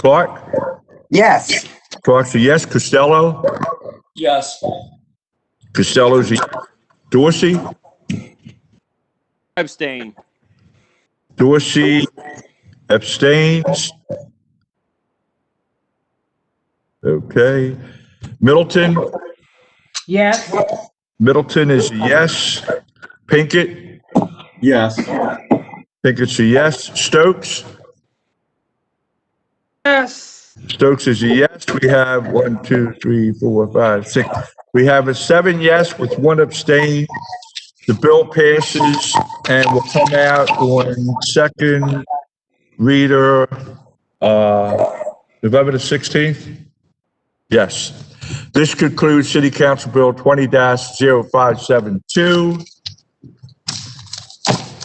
Clark? Yes. Clark's a yes. Costello? Yes. Costello's a yes. Dorsey? Abstain. Dorsey abstains. Okay. Middleton? yes, Middleton is a yes. Pinkett? Yes. Pinkett's a yes. Stokes? yes, Stokes is a yes. We have one, two, three, four, five, six. We have a seven yes with one abstain. The bill passes and will come out on second reader, uh, November the 16th? Yes. This concludes City Council Bill 20-0572.